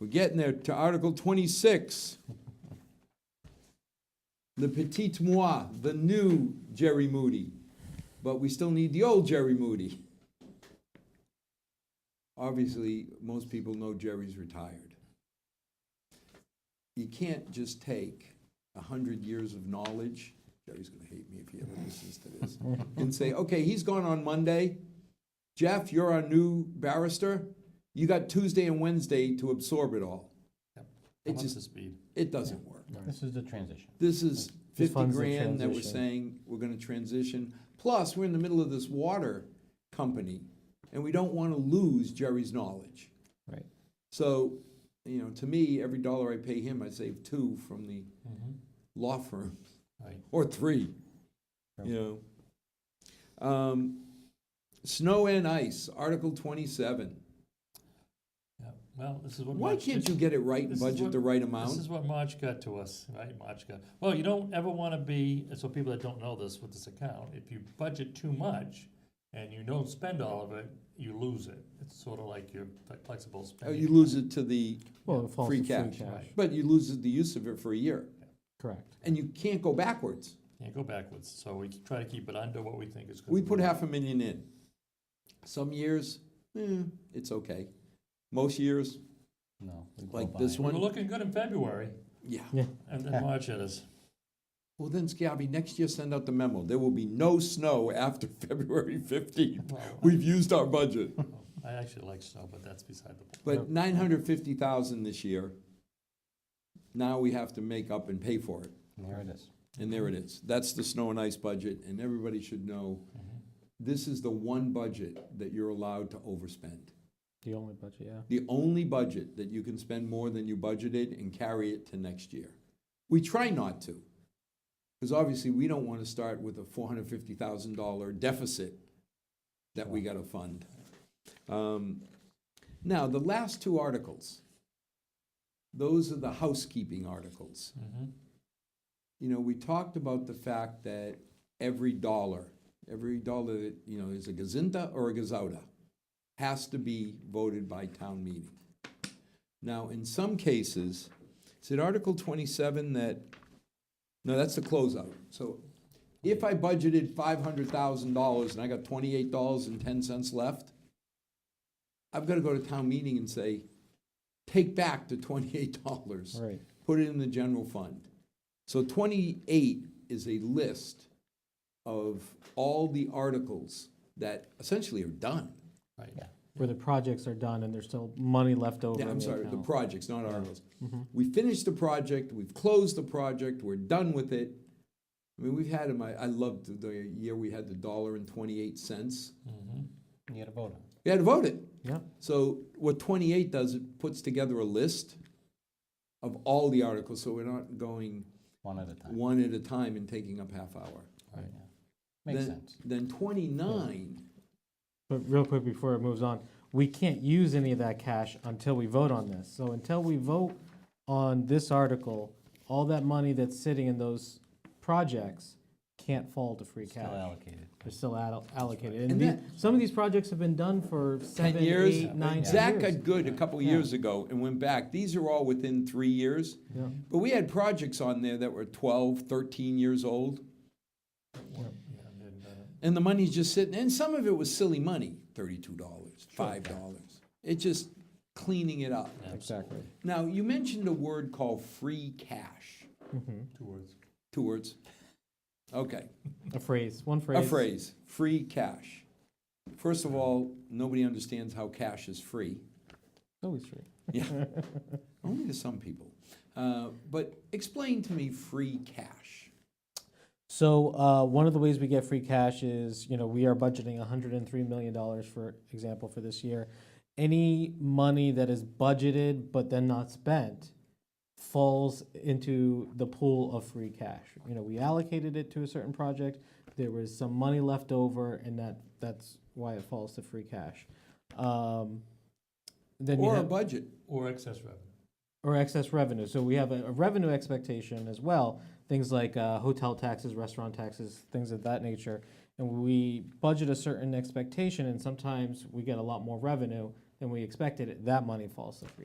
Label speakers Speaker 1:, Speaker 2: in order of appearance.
Speaker 1: We're getting there to Article 26. The petit moi, the new Jerry Moody. But we still need the old Jerry Moody. Obviously, most people know Jerry's retired. You can't just take a hundred years of knowledge, Jerry's gonna hate me if he ever listens to this, and say, okay, he's gone on Monday. Jeff, you're our new barrister. You got Tuesday and Wednesday to absorb it all. It
Speaker 2: I'm up to
Speaker 1: just,
Speaker 2: speed.
Speaker 1: it doesn't work.
Speaker 3: This is the transition.
Speaker 1: This is
Speaker 4: Just
Speaker 1: fifty
Speaker 4: funds the
Speaker 1: grand that we're
Speaker 4: transition.
Speaker 1: saying we're gonna transition. Plus, we're in the middle of this water company, and we don't wanna lose Jerry's knowledge.
Speaker 4: Right.
Speaker 1: So, you know, to me, every dollar I pay him, I save two from the
Speaker 2: Mhm.
Speaker 1: law firm,
Speaker 2: Right.
Speaker 1: or three, you know. Um, Snow and ice, Article twenty-seven.
Speaker 2: Yeah. Well, this is what.
Speaker 1: Why
Speaker 2: March-
Speaker 1: can't
Speaker 2: this-
Speaker 1: you get it right and
Speaker 2: this is
Speaker 1: budget
Speaker 2: what-
Speaker 1: the right
Speaker 2: This
Speaker 1: amount?
Speaker 2: is what March got to us, right? March got. Well, you don't ever want to be. So people that don't know this with this account, if you budget too much and you don't spend all of it, you lose it. It's sort of like your fle- flexible
Speaker 1: Oh,
Speaker 2: spending.
Speaker 1: You lose it to the,
Speaker 4: Well, it falls
Speaker 1: Free
Speaker 4: to free
Speaker 1: cash.
Speaker 4: cash,
Speaker 2: Right.
Speaker 1: but you lose the use of it for a year,
Speaker 4: correct.
Speaker 1: and you can't go backwards.
Speaker 2: Can't go backwards. So we try to keep it under what we think is. gonna
Speaker 1: We
Speaker 2: be
Speaker 1: put
Speaker 2: right.
Speaker 1: half a million in. Some years, eh, it's okay. Most years,
Speaker 3: No. we go
Speaker 1: like
Speaker 3: by
Speaker 1: this
Speaker 3: it.
Speaker 2: We were
Speaker 1: one,
Speaker 2: looking good in February,
Speaker 1: yeah.
Speaker 2: and then March hit us.
Speaker 1: Well, then, Scabby, next year send out the memo. There will be no snow after February fifteenth.
Speaker 2: Well,
Speaker 1: We've used our budget.
Speaker 2: I actually like snow, but that's beside the point.
Speaker 1: But nine hundred fifty thousand this year. Now we have to make up and pay for it.
Speaker 3: And There it is.
Speaker 1: And there it is. That's the snow and ice budget, and everybody should know, this is the one budget that you're allowed to overspend.
Speaker 4: The only budget, yeah.
Speaker 1: the only budget that you can spend more than you budgeted and carry it to next year. We try not to, because obviously we don't want to start with a four hundred fifty thousand dollar deficit that we got to fund. Um, Now, the last two articles, those are the housekeeping articles
Speaker 2: Mhm.
Speaker 1: you know, we talked about the fact that every dollar, every dollar that, you know, is a gazinta or a gazauda, has to be voted by town meeting. Now, in some cases, is it Article twenty-seven that, no, that's the closeout. So if I budgeted five hundred thousand dollars and I got twenty-eight dollars and ten cents left, I've got to go to town meeting and say, take back the twenty-eight dollars
Speaker 4: Right.
Speaker 1: put it in the general fund. So twenty-eight is a list of all the articles that essentially are done.
Speaker 2: Right.
Speaker 4: Where the projects are done and there's still money left over.
Speaker 1: Yeah,
Speaker 4: in
Speaker 1: I'm
Speaker 4: the
Speaker 1: sorry, the
Speaker 4: account. Mm-hmm.
Speaker 1: projects, not articles. We finished the project, we've closed the project, we're done with it. I mean, we've had them, I, I loved the- the year we had the dollar and twenty-eight cents.
Speaker 3: You gotta vote on it.
Speaker 1: We had to vote it.
Speaker 4: Yeah,
Speaker 1: So what twenty-eight does, it puts together a list of all the articles, so we're not going
Speaker 3: one at a time.
Speaker 1: one at a time and taking up half hour.
Speaker 3: Right. Yeah. Makes
Speaker 1: then,
Speaker 3: sense.
Speaker 1: Then 29,
Speaker 4: but real quick before it moves on, we can't use any of that cash until we vote on this. So until we vote on this article, all that money that's sitting in those projects can't fall to free
Speaker 3: Still
Speaker 4: cash.
Speaker 3: allocated.
Speaker 4: They're still allo- allocated.
Speaker 1: And
Speaker 4: And the-
Speaker 1: that-
Speaker 4: some of these projects have been done for
Speaker 1: 10
Speaker 4: seven,
Speaker 1: years.
Speaker 4: eight, nine, ten
Speaker 1: Zach
Speaker 4: years.
Speaker 1: got good a couple
Speaker 4: Yeah.
Speaker 1: years ago and went back. These are all within three years.
Speaker 4: Yeah.
Speaker 1: But we had projects on there that were 12, 13 years old,
Speaker 2: Yeah, and then, uh,
Speaker 1: and the money's just sitting. And some of it was silly money $32, $5. It's just cleaning it up.
Speaker 4: Exactly.
Speaker 1: Now, you mentioned a word called free cash.
Speaker 2: Two words.
Speaker 1: Two words. Okay.
Speaker 4: A phrase, one phrase.
Speaker 1: A phrase, free cash. First of all, nobody understands how cash is free.
Speaker 4: Always free.
Speaker 1: Only to some people. Uh, But explain to me free cash.
Speaker 4: So uh, one of the ways we get free cash is, you know, we are budgeting 103 million dollars, for example, for this year. Any money that is budgeted but then not spent falls into the pool of free cash. You know, we allocated it to a certain project. There was some money left over, and that that's why it falls to free cash. Um, then you
Speaker 1: Or a
Speaker 4: have-
Speaker 1: budget.
Speaker 2: Or excess revenue.
Speaker 4: or excess revenue. So we have a, a revenue expectation as well, things like uh, hotel taxes, restaurant taxes, things of that nature. And we budget a certain expectation, and sometimes we get a lot more revenue than we expected. That money falls to free